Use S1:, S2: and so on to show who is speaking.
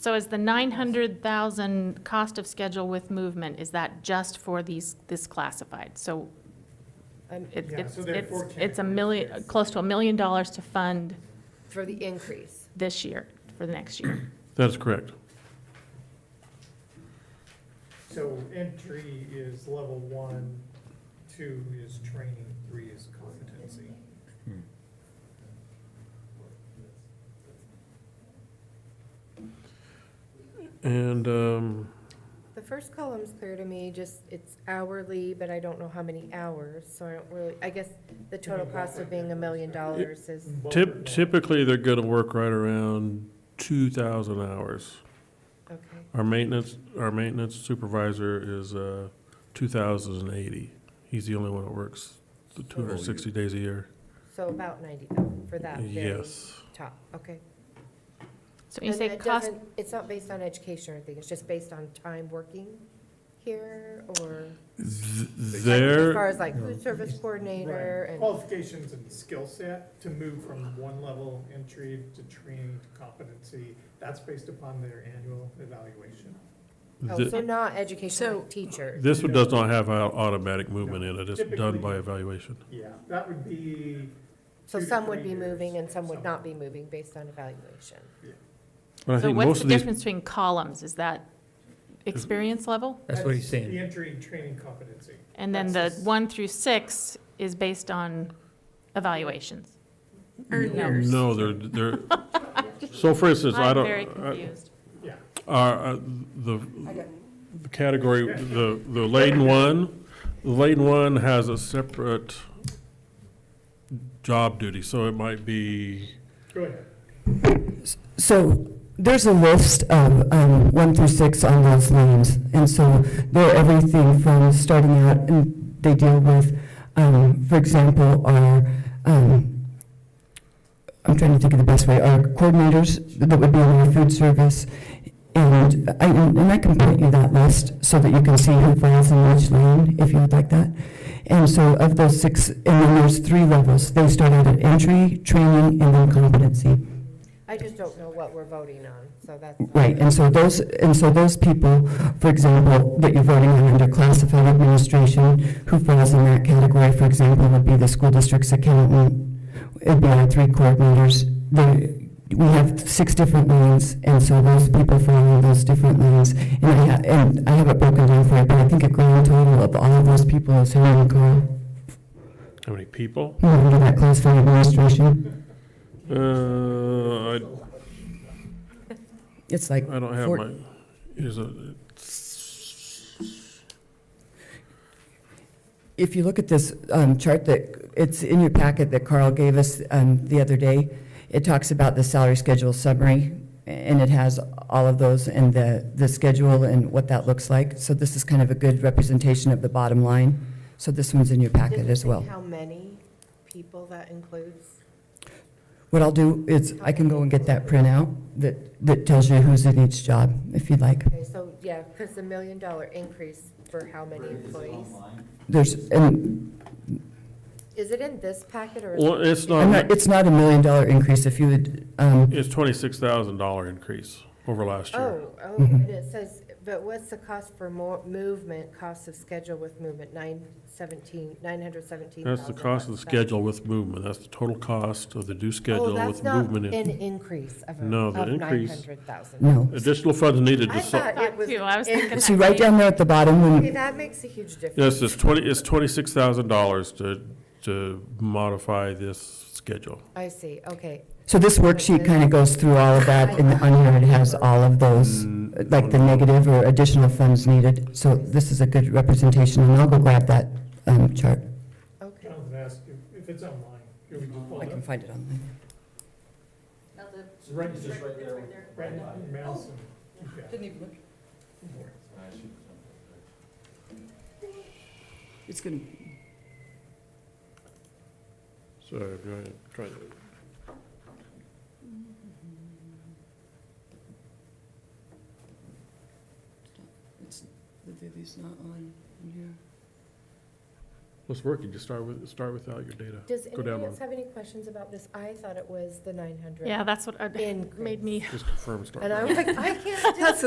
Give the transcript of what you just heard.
S1: So is the 900,000 cost of schedule with movement, is that just for these, this classified? So
S2: And
S1: it-
S3: Yeah,
S1: it's,
S3: so there are four
S1: it's, it's a million, close to a million dollars to fund
S2: for the increase.
S1: this year, for the next year.
S4: That's correct.
S3: So entry is level one, two is training, three is competency.
S4: And, um,
S2: The first column's clear to me, just it's hourly, but I don't know how many hours, so I don't really, I guess the total
S3: Mm-hmm.
S2: cost of being a million dollars is,
S3: Both are
S4: typ-
S3: valid.
S4: typically, they're gonna work right around two thousand hours.
S2: okay.
S4: Our maintenance, our maintenance supervisor is, uh, two thousand and eighty. He's the only one that works the two hundred and sixty days a year.
S2: So about ninety thousand for that very
S4: Yes.
S2: top, okay.
S1: So you
S2: And
S1: say
S2: that
S1: cost,
S2: doesn't- It's not based on education or anything, it's just based on time working here, or?
S4: Th-
S2: As far
S4: There,
S2: as like food service coordinator
S3: Right.
S2: and,
S3: Qualifications and skill set to move from one level entry to training to competency, that's based upon their annual evaluation.
S2: oh,
S4: th-
S2: so not education,
S5: So-
S2: like teacher.
S4: this one does not have au- automatic movement in it. It's done
S3: Typically-
S4: by evaluation.
S3: Yeah, that would be,
S2: So
S3: two to
S2: some would
S3: three
S2: be
S3: years,
S2: moving and some would
S3: some.
S2: not be moving based on evaluation.
S4: But I
S1: so
S4: think
S1: what's
S4: most
S1: the
S4: of these,
S1: difference between columns? Is that experience level?
S5: That's what he's
S3: the
S5: saying.
S3: entry, training, competency.
S1: And then the
S3: That's just-
S1: one through six is based on evaluations? Earners.
S4: no, they're, they're, so for instance, I
S1: I'm
S4: don't. uh,
S1: very
S4: I-
S1: confused.
S3: Yeah,
S4: Our, uh, the the category, the, the Layton one, the Layton one has a separate job duty, so it might be,
S3: go ahead.
S6: So there's a list of um, one through six on those lanes, and so they're everything from starting out, and they deal with, um, for example, our, um, I'm trying to think of the best way, our coordinators that would be on our food service, and I, and I can print you that list so that you can see who falls in which lane, if you would like that. And so of those six, and then there's three levels, they start out at entry, training, and then competency.
S2: I just don't know what we're voting on, so that's.
S6: Right, and so those, and so those people, for example, that you're voting on under classified administration, who falls in that category, for example, would be the school district's accountant, it'd be our three coordinators, the, we have six different lanes, and so those people fall in those different lanes. And I, ha- and I have it broken down for you, but I think a grand total of all of those people is who I would call,
S4: how many people?
S6: who are under that classified administration.
S4: Uh, I,
S6: It's like,
S4: I don't have
S6: Four-
S4: my, is it,
S6: If you look at this um, chart that, it's in your packet that Carl gave us um, the other day, it talks about the salary schedule summary, and it has all of those and the, the schedule and what that looks like. So this is kind of a good representation of the bottom line. So this one's in your packet
S2: Doesn't
S6: as
S2: say
S6: well.
S2: How many people that includes?
S6: What I'll do is, I can go and get that printout that, that tells you who's in each job, if you'd like.
S2: Okay, so, yeah, because the million dollar increase for how many employees?
S6: There's, and
S2: Is it in this packet or? is
S4: well,
S2: it-
S4: it's
S6: I'm not,
S4: not,
S6: it's not a million dollar increase if you would, um,
S4: it's twenty-six thousand dollar increase over last year.
S2: Oh, oh,
S6: Mm-hmm.
S2: and it says, but what's the cost for more movement, cost of schedule with movement, nine seventeen, nine hundred seventeen thousand?
S4: That's the cost of the schedule with movement, that's the total cost of the due
S2: Oh,
S4: schedule
S2: that's
S4: with
S2: not
S4: movement.
S2: an
S4: in-
S2: increase of,
S4: No, the
S2: nine
S4: increase-
S2: hundred thousand.
S6: no.
S4: Additional funds needed
S2: I
S4: to, su-
S2: thought it was.
S1: Phew, I was
S2: in-
S1: thinking that
S6: See, right
S1: maybe-
S6: down there at the bottom, when,
S2: Okay, that makes a huge difference.
S4: yes, it's twenty, it's twenty-six thousand dollars to, to modify this schedule.
S2: I see, okay.
S6: So this worksheet kind of goes through all of that, and on here it has all of those, like the negative or additional funds needed. So this is a good representation, and I'll go grab that um, chart.
S2: Okay,
S3: Jonathan asked if- if it's online. Can we just pull it up?
S6: find it online.
S3: It's Right, it's right there. Right in mouse and- yeah.
S7: Didn't even look. It's gonna,
S4: So, go ahead, try to.
S7: it's, the Vivi's not on in here.
S4: Let's work, you just start with, start without your data.
S2: Does
S4: Go down
S2: anybody
S4: one.
S2: else have any questions about this? I thought it was the nine hundred.
S1: Yeah, that's what, I-
S2: Increase.
S1: made me
S4: Just confirm, start.
S2: And I
S4: with-
S2: was like, I can't do